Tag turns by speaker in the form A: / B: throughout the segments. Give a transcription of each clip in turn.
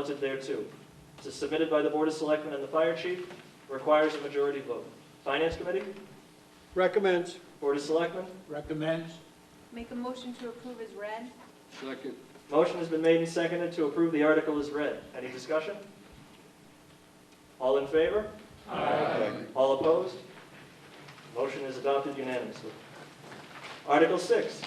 A: noted there too. This is submitted by the Board of Selectmen and the Fire Chief, requires a majority vote. Finance Committee,
B: Recommends.
A: Board of Selectmen,
B: Recommends.
C: Make a motion to approve as read.
B: Second.
A: motion has been made and seconded to approve the article as read. Any discussion? All in favor? Aye. All opposed? Motion is adopted unanimously. Article 6,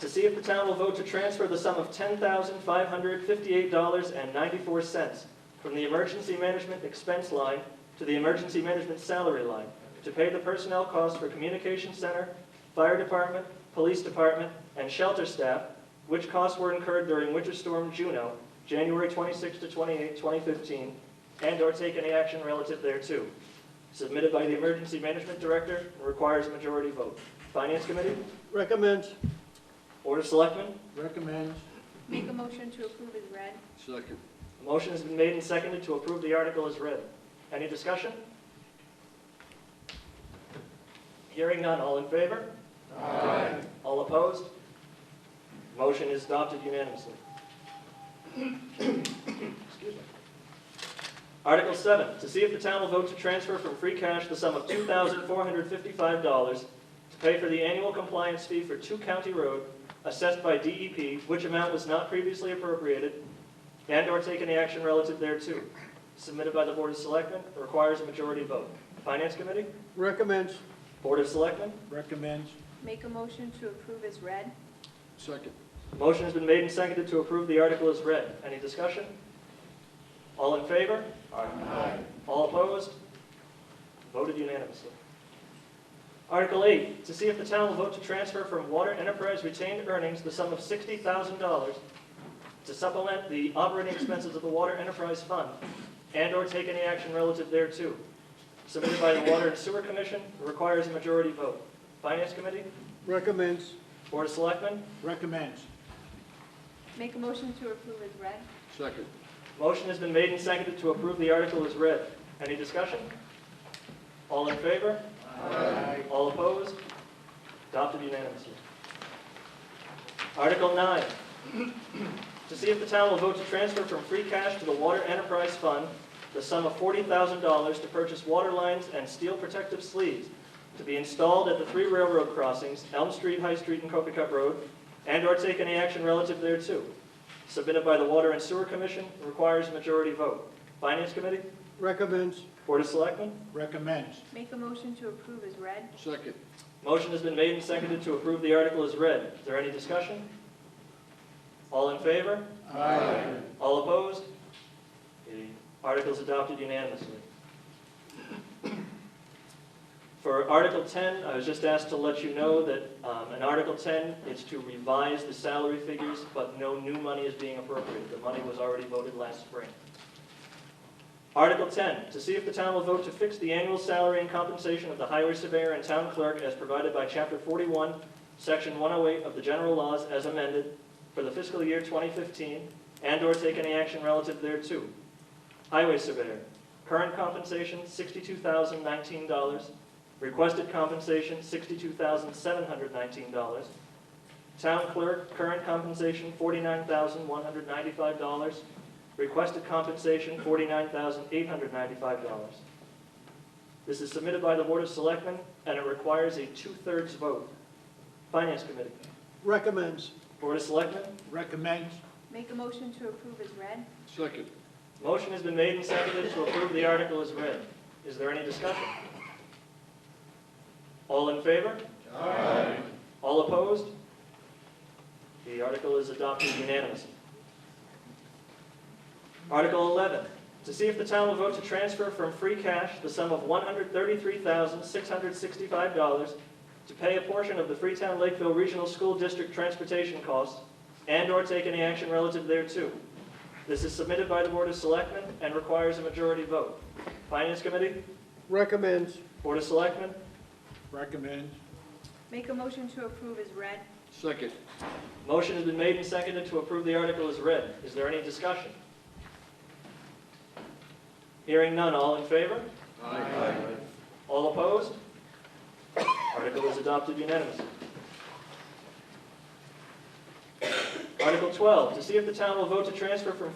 A: to see if the town will vote to transfer the sum of $10,558.94 from the emergency management expense line to the emergency management salary line to pay the personnel costs for communication center, fire department, police department, and shelter staff, which costs were incurred during Winter Storm Juno, January 26 to 28, 2015, and/or take any action relative thereto. Submitted by the emergency management director and requires a majority vote. Finance committee,
B: Recommends.
A: board of selectmen,
B: Recommends.
C: Make a motion to approve as read.
B: Second.
A: A motion has been made and seconded to approve the article as read. Any discussion? Hearing none, all in favor? Aye. All opposed? Motion is adopted unanimously. Excuse me. Article 7, to see if the town will vote to transfer from free cash the sum of $2,455 to pay for the annual compliance fee for Two County Road assessed by DEP, which amount was not previously appropriated, and/or take any action relative thereto, submitted by the Board of Selectmen, requires a majority vote. Finance Committee,
B: Recommends.
A: Board of Selectmen,
B: Recommends.
C: Make a motion to approve as read.
B: Second.
A: motion has been made and seconded to approve the article as read. Any discussion? All in favor? Aye. All opposed? Voted unanimously. Article 8, to see if the town will vote to transfer from Water Enterprise retained earnings the sum of $60,000 to supplement the operating expenses of the Water Enterprise Fund and/or take any action relative thereto. Submitted by the Water and Sewer Commission, requires a majority vote. Finance Committee,
B: Recommends.
A: Board of Selectmen,
B: Recommends.
C: Make a motion to approve as read.
B: Second.
A: motion has been made and seconded to approve the article as read. Any discussion? All in favor?
B: Aye.
A: All opposed? Adopted unanimously. Article 9, to see if the town will vote to transfer from free cash to the Water Enterprise Fund the sum of $40,000 to purchase water lines and steel protective sleeves to be installed at the three railroad crossings, Elm Street, High Street, and Copacut Road, and/or take any action relative thereto. Submitted by the Water and Sewer Commission, requires a majority vote. Finance Committee,
B: Recommends.
A: Board of Selectmen,
B: Recommends.
C: Make a motion to approve as read.
B: Second.
A: Motion has been made and seconded to approve the article as read. Is there any discussion? All in favor?
B: Aye.
A: All opposed? The article is adopted unanimously. For Article 10, I was just asked to let you know that um, in Article 10, it's to revise the salary figures, but no new money is being appropriated. The money was already voted last spring. Article 10, to see if the town will vote to fix the annual salary and compensation of the highway surveyor and town clerk as provided by Chapter 41, Section 108 of the general laws as amended for the fiscal year 2015, and/or take any action relative thereto. Highway surveyor, current compensation $62,019, requested compensation $62,719. Town clerk, current compensation $49,195, requested compensation $49,895. This is submitted by the Board of Selectmen, and it requires a two-thirds vote. Finance Committee,
B: Recommends.
A: Board of Selectmen,
B: Recommends.
C: Make a motion to approve as read.
B: Second.
A: Motion has been made and seconded to approve the article as read. Is there any discussion? All in favor?
B: Aye.
A: All opposed? The article is adopted unanimously. Article 11, to see if the town will vote to transfer from free cash the sum of $133,665 to pay a portion of the Freetown Lakeville Regional School District transportation costs and/or take any action relative thereto. This is submitted by the Board of Selectmen and requires a majority vote. Finance Committee,
B: Recommends.
A: Board of Selectmen,
B: Recommends.
C: Make a motion to approve as read.
B: Second.
A: Motion has been made and seconded to approve the article as read. Is there any discussion? Hearing none, all in favor?
B: Aye.
A: All opposed? Article is adopted unanimously. Article 12, to see if the town will vote to transfer from